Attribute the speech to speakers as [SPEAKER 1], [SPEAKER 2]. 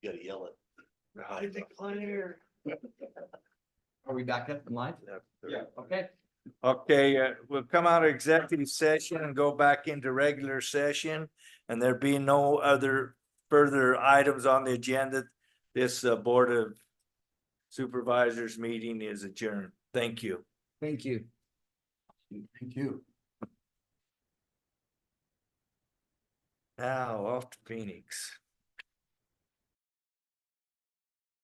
[SPEAKER 1] You gotta yell it. High
[SPEAKER 2] Did declare.
[SPEAKER 3] Are we back up in line?
[SPEAKER 1] five.
[SPEAKER 2] Yeah.
[SPEAKER 3] Okay,
[SPEAKER 4] Okay, uh, we'll come out of executive session and go back into regular session. And there be no other further items on the agenda. This uh, Board of Supervisors meeting is adjourned. Thank you.
[SPEAKER 3] thank you.
[SPEAKER 1] Thank you.
[SPEAKER 4] Now Oh, off to Phoenix.